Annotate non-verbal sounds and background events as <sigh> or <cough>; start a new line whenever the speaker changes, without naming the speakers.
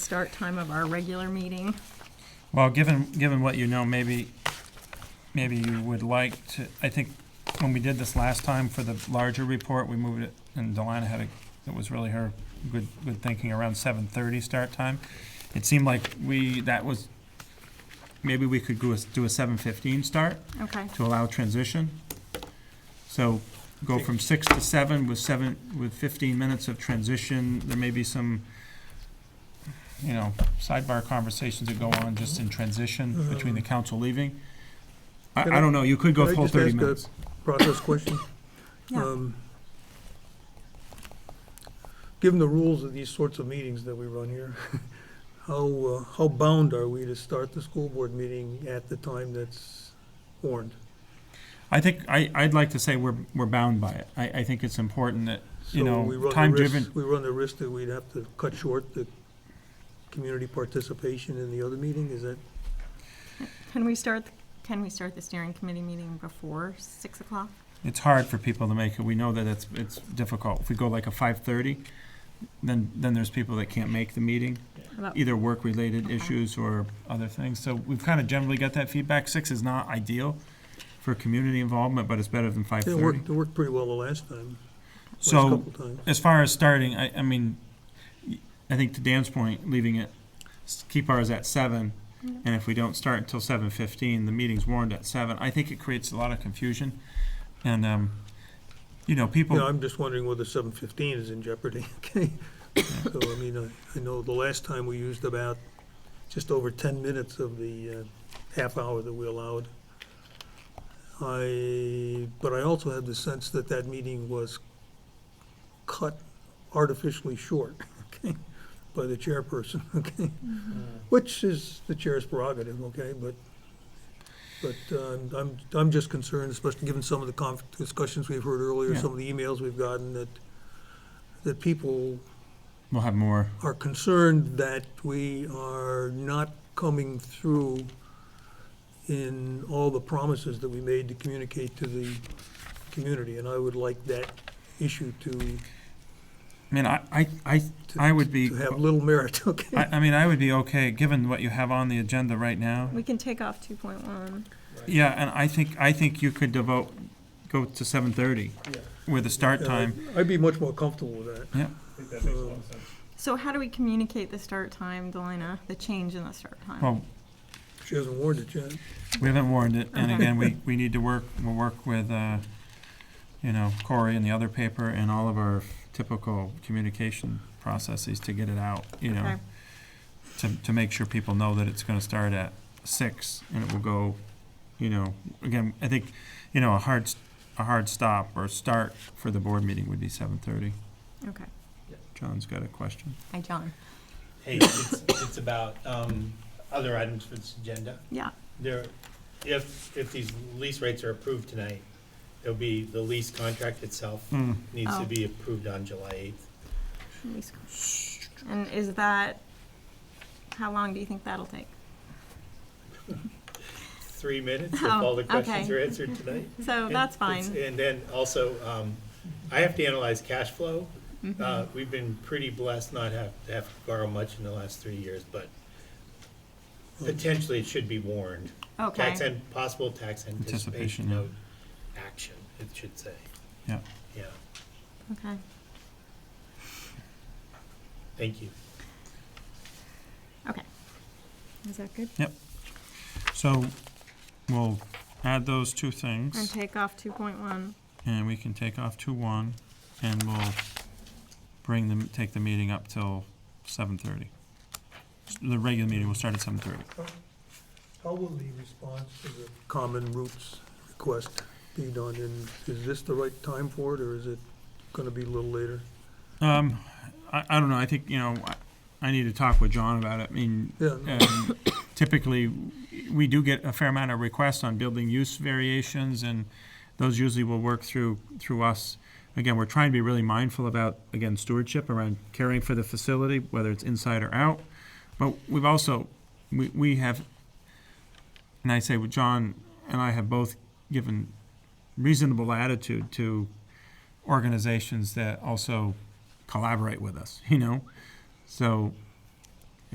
start time of our regular meeting.
Well, given, given what you know, maybe, maybe you would like to, I think when we did this last time for the larger report, we moved it, and Delana had a, it was really her good, good thinking around seven thirty start time. It seemed like we, that was, maybe we could go, a- do a seven fifteen start
Okay.
to allow transition. So go from six to seven with seven, with fifteen minutes of transition. There may be some, you know, sidebar conversations that go on just in transition between the council leaving. I,
Mm-hmm. Can
I
I-
don't know, you could go
Can I
full
just
thirty
ask a
minutes.
Process question.
Yeah.
Um, Given the rules of these sorts of meetings that we run here, <laughs> how, uh, how bound are we to start the school board meeting at the time that's warned?
I think, I, I'd like to say we're, we're bound by it. I, I think it's important that, You
So
know,
we run the
time-driven-
risk- We run the risk that we'd have to cut short the community participation in the other meeting, is that?
Can we start, can we start the steering committee meeting before six o'clock?
it's hard for people to make it. We know that it's, it's difficult. If we go like a five thirty, then, then there's people that can't make the meeting.
About-
either work-related
Okay.
issues or other things. So we've kind of generally got that feedback. Six is not ideal for community involvement, but it's better than five
It
thirty.
worked, it worked pretty well the last time, last
So
couple times.
as far as starting, I, I mean, I think to Dan's point, leaving it, s- keep ours at seven.
Yeah.
And if we don't start until seven fifteen, the meeting's warned at seven. I think it creates a lot of confusion. And, um, you know, people.
Yeah, I'm just wondering whether seven fifteen is in jeopardy, <laughs> okay? So, I mean, I, I know the last time we used about just over ten minutes of the uh, half hour that we allowed. I, but I also had the sense that that meeting was cut artificially short, <laughs> okay, by the chairperson, <laughs> okay? Which is the chair's prerogative, okay, but, but uh, I'm- I'm, I'm just concerned, especially given some of the conf- discussions we've heard earlier,
Yeah.
some of the emails we've gotten, that, that people
We'll have more.
are concerned that we are not coming through in all the promises that we made to communicate to the community, and I would like that issue to,
I mean, I, I, I, I would be,
to have little merit, <laughs> okay?
I, I mean, I would be okay, given what you have on the agenda right now.
We can take off two point one.
Yeah, and I think, I think you could devote, go to seven thirty with a start time.
Uh, I'd be much more comfortable with that. Um,
So how do we communicate the start time, Delina, the change in the start time?
Well,
She hasn't warned it yet.
we haven't warned it, and
Okay.
again, we, we need to work, we'll work with, uh, you know, Corey and the other paper and all of our typical communication processes to get it out, you know,
Okay.
to, to make sure people know that it's gonna start at six, and it will go, you know, again, I think, you know, a hard, s- a hard stop or start for the board meeting would be seven thirty.
Okay,
John's got a question.
hi, John.
Hey, it's, it's about, um, other items for this agenda.
Yeah,
There, if, if these lease rates are approved tonight, there'll be, the lease contract itself needs
Oh.
to be approved on July eighth.
Let me sc- and is that, how long do you think that'll take?
Three minutes if
Oh,
all the
okay.
questions are answered tonight.
So
And
that's
it's-
fine.
And then also, um, I have to analyze cash flow.
Mm-hmm.
Uh, we've been pretty blessed not have, to have to borrow much in the last three years, but potentially it should be warned.
Okay,
Tax and, possible tax
Anticipation,
anticipation
yeah.
note action, it should say,
Yeah.
yeah,
okay.
thank you.
Is that good?
So we'll add those two
And
things,
take off two point one.
and we can take off two one, and we'll bring them, take the meeting up till seven thirty. The regular meeting will start at seven thirty.
How will the response to the common roots request be done? And is this the right time for it, or is it gonna be a little later?
Um, I, I don't know, I think, you know, I, I need to talk with John about it, I mean,
Yeah, no,
um, typically, we do get a fair amount of requests on building use variations, and those usually will work through, through us. Again, we're trying to be really mindful about, again, stewardship around caring for the facility, whether it's inside or out. But we've also, we, we have, and I say, well, John and I have both given reasonable attitude to organizations that also collaborate with us, you know? So